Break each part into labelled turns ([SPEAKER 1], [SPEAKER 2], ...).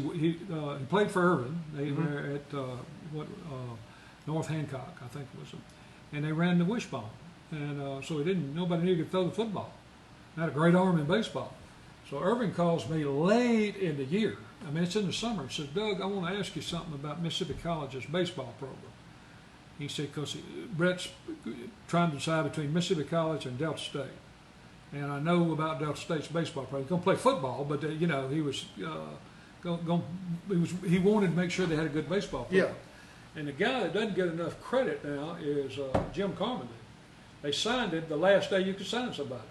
[SPEAKER 1] He, he, uh, he played for Irvin. They were at uh, what uh, North Hancock, I think it was, and they ran the wishbone, and uh, so he didn't. Nobody knew he could throw the football. Had a great arm in baseball. So Irvin calls me late in the year. I mean, it's in the summer. and says, Doug, I want to ask you something about Mississippi College's baseball program. He said, because Brett's trying to decide between Mississippi College and Delta State. And I know about Delta State's baseball program. He's going to play football, but, uh, you know, he was, uh, going, going, he was, he wanted to make sure they had a good baseball program. And the guy that doesn't get enough credit now is uh, Jim Carmody. They signed it the last day you could sign somebody.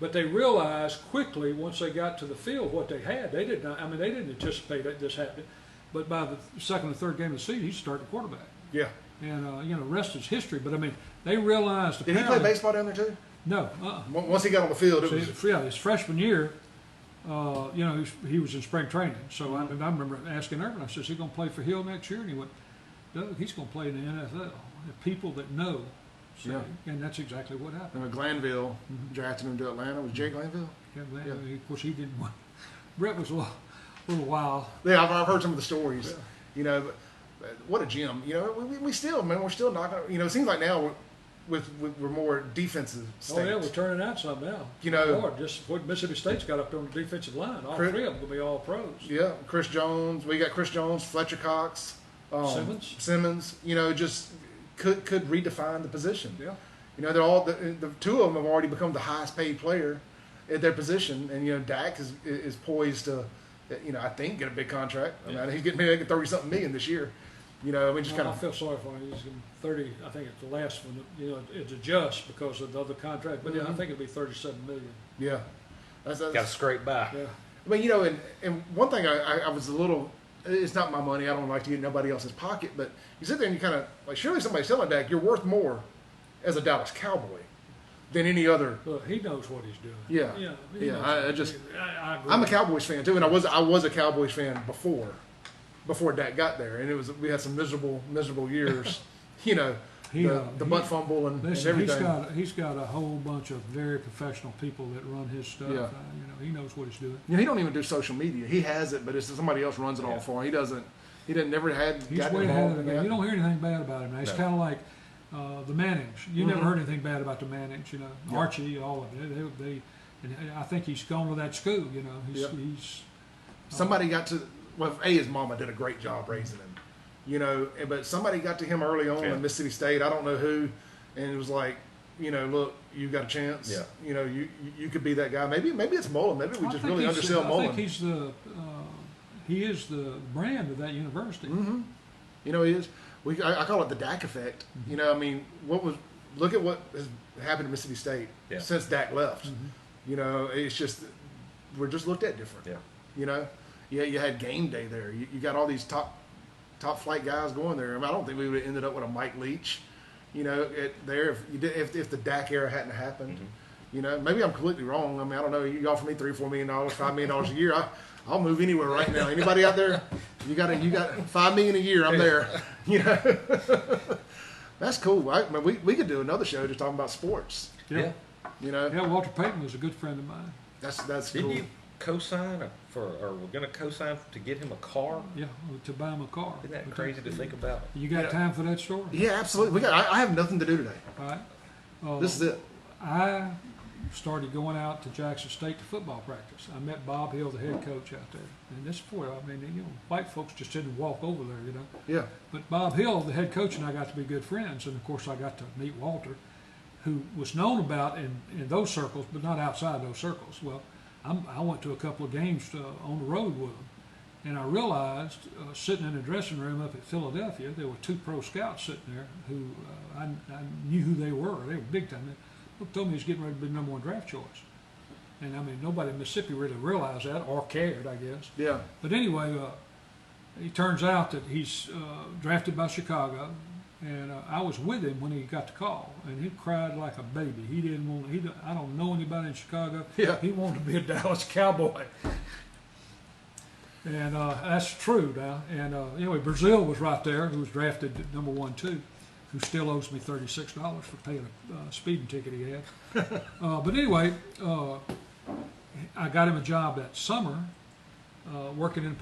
[SPEAKER 1] But they realized quickly once they got to the field what they had. They did not. I mean, they didn't anticipate that this happened. But by the second or third game of the season, he's starting quarterback,
[SPEAKER 2] Yeah.
[SPEAKER 1] and uh, you know, rest is history. But I mean, they realized.
[SPEAKER 2] Did he play
[SPEAKER 1] apparently-
[SPEAKER 2] baseball down there too?
[SPEAKER 1] No. Uh-uh.
[SPEAKER 2] Once once he got on the field, it
[SPEAKER 1] So,
[SPEAKER 2] was.
[SPEAKER 1] his- yeah, his freshman year, uh, you know, he was, he was in spring training. So
[SPEAKER 2] Mm-hmm.
[SPEAKER 1] I, and I remember asking Urban, I said, is he going to play for Hill next year? And he went, Doug, he's going to play in the NFL. The people that know, say,
[SPEAKER 2] Yeah.
[SPEAKER 1] and that's exactly what happened.
[SPEAKER 2] You know, Glanville drafted him to Atlanta. Was Jay Glanville?
[SPEAKER 1] Yeah, well,
[SPEAKER 2] Yeah.
[SPEAKER 1] Of course, he didn't want. Brett was a little, little wild. Oh,
[SPEAKER 2] Yeah, I've, I've heard some of the stories. You know, but, but what a gym. You know, we, we, we still, man, we're still not gonna. You know, it seems like now we're, with, with we're more defensive state. Oh.
[SPEAKER 1] Oh yeah, we're turning out some now.
[SPEAKER 2] You know-
[SPEAKER 1] Lord, just what Mississippi State's got up there on the defensive line. All
[SPEAKER 2] Chris-
[SPEAKER 1] three of them will be all pros.
[SPEAKER 2] Yeah, Chris Jones. We got Chris Jones, Fletcher Cox, um,
[SPEAKER 1] Simmons.
[SPEAKER 2] Simmons. You know, just could could redefine the position.
[SPEAKER 1] Yeah.
[SPEAKER 2] You know, they're all the, the two of them have already become the highest paid player at their position, and you know Dak is is poised to, you know, I think get a big contract. I mean, he's getting maybe like thirty something million this year. You know, we just
[SPEAKER 1] Well,
[SPEAKER 2] kind
[SPEAKER 1] I
[SPEAKER 2] of
[SPEAKER 1] feel sorry for him. He's in thirty. I think it's the last one. You know, it's adjust because of the other contract. But yeah, I
[SPEAKER 2] Mhm.
[SPEAKER 1] think it'll be thirty-seven million.
[SPEAKER 2] yeah. That's, that's,
[SPEAKER 3] Got to scrape by.
[SPEAKER 1] Yeah.
[SPEAKER 2] I mean, you know, and, and one thing I, I, I was a little, it's not my money. I don't like to get in nobody else's pocket, but you sit there and you kind of, like, surely somebody's telling Dak you're worth more as a Dallas Cowboy than any other.
[SPEAKER 1] Look, he knows what he's doing.
[SPEAKER 2] Yeah.
[SPEAKER 1] Yeah. he
[SPEAKER 2] Yeah,
[SPEAKER 1] knows
[SPEAKER 2] I-
[SPEAKER 1] what
[SPEAKER 2] I
[SPEAKER 1] he's
[SPEAKER 2] just-
[SPEAKER 1] doing. I, I agree.
[SPEAKER 2] I'm a Cowboys fan too, and I was I was a Cowboys fan before, before Dak got there, and it was we had some miserable miserable years, you know,
[SPEAKER 1] He,
[SPEAKER 2] the,
[SPEAKER 1] uh,
[SPEAKER 2] the
[SPEAKER 1] he-
[SPEAKER 2] butt fumble and, and
[SPEAKER 1] Listen, he's
[SPEAKER 2] everything.
[SPEAKER 1] got he's got a whole bunch of very professional people that run his stuff.
[SPEAKER 2] Yeah.
[SPEAKER 1] Uh, you know, he knows what he's doing.
[SPEAKER 2] you know, he don't even do social media. He has it, but it's somebody else runs it all
[SPEAKER 3] Yeah.
[SPEAKER 2] for him. He doesn't. He didn't never had.
[SPEAKER 1] He's
[SPEAKER 2] gotten
[SPEAKER 1] way ahead
[SPEAKER 2] involved
[SPEAKER 1] of the game.
[SPEAKER 2] in that.
[SPEAKER 1] You don't hear anything bad about him. Now. It's
[SPEAKER 3] No.
[SPEAKER 1] kind of like uh, the Mannings. You never
[SPEAKER 2] Mhm.
[SPEAKER 1] heard anything bad about the Mannings. You know,
[SPEAKER 2] Yeah.
[SPEAKER 1] Archie, all of it. They, they, and I think he's gone to that school. You know, he's,
[SPEAKER 2] Yeah.
[SPEAKER 1] he's
[SPEAKER 2] Somebody got to well, a his mama did a great job raising him, you know. and- But somebody got to him early on
[SPEAKER 3] Yeah.
[SPEAKER 2] in Mississippi State. I don't know who, and it was like, you know, look, you got a chance.
[SPEAKER 3] Yeah.
[SPEAKER 2] You know, you you- you could be that guy. Maybe maybe it's Mullen. Maybe we
[SPEAKER 1] I
[SPEAKER 2] just
[SPEAKER 1] think
[SPEAKER 2] really
[SPEAKER 1] he's-
[SPEAKER 2] undersell
[SPEAKER 1] I think
[SPEAKER 2] Mullen.
[SPEAKER 1] he's the uh, he is the brand of that university.
[SPEAKER 2] hmm You know, he is. We I, I call it the Dak effect.
[SPEAKER 3] Mm-hmm.
[SPEAKER 2] You know, I mean, what was look at what has happened to Mississippi State
[SPEAKER 3] Yeah. Mm-hmm.
[SPEAKER 2] since Dak left. You know, it's just we're just looked at different.
[SPEAKER 3] Yeah.
[SPEAKER 2] You know, yeah, you had game day there. You, you got all these top top flight guys going there. I, mean, I don't think we would have ended up with a Mike Leach, you know, at, there if you did if, if the Dak era hadn't happened.
[SPEAKER 3] Mm-hmm.
[SPEAKER 2] You know, maybe I'm completely wrong. I mean, I don't know. You offer me three, four million dollars, five million dollars a year, I, I'll move anywhere right now. Anybody out there? You got a, you got five million a year. I'm there. You know, that's cool. I, I mean, we we could do another show just talking about sports.
[SPEAKER 3] Yeah.
[SPEAKER 2] You know,
[SPEAKER 1] Yeah, Walter Payton was a good friend of mine.
[SPEAKER 2] that's that's
[SPEAKER 3] Didn't
[SPEAKER 2] cool.
[SPEAKER 3] you co-sign a- for, or we're going to co-sign to get him a car?
[SPEAKER 1] Yeah, to buy him a car.
[SPEAKER 3] Isn't that crazy to think about?
[SPEAKER 1] You got
[SPEAKER 2] Yeah.
[SPEAKER 1] time for that story?
[SPEAKER 2] Yeah, absolutely. We got. I, I have nothing to do today.
[SPEAKER 1] All right. Uh,
[SPEAKER 2] This is it.
[SPEAKER 1] I started going out to Jackson State to football practice. I met Bob Hill, the head coach out there, and this boy, I mean, you know, white folks just didn't walk over there, you know.
[SPEAKER 2] Yeah.
[SPEAKER 1] But Bob Hill, the head coach, and I got to be good friends, and of course I got to meet Walter, who was known about in, in those circles, but not outside those circles. Well, I'm, I went to a couple of games uh, on the road with him, and I realized uh, sitting in a dressing room up at Philadelphia, there were two pro scouts sitting there who uh, I, I knew who they were. They were big time. They told me he was getting ready to be the number one draft choice, and I mean nobody in Mississippi really realized that or cared, I guess.
[SPEAKER 2] Yeah.
[SPEAKER 1] But anyway, uh, it turns out that he's uh, drafted by Chicago, and uh, I was with him when he got the call, and he cried like a baby. He didn't want. He don't- I don't know anybody in Chicago.
[SPEAKER 2] Yeah.
[SPEAKER 1] He wanted to be a Dallas Cowboy. And uh, that's true now. And uh, anyway, Brazil was right there, who was drafted at number one too, who still owes me thirty six dollars for paying a uh, speeding ticket he had. uh, but anyway, uh, I got him a job that summer, uh, working in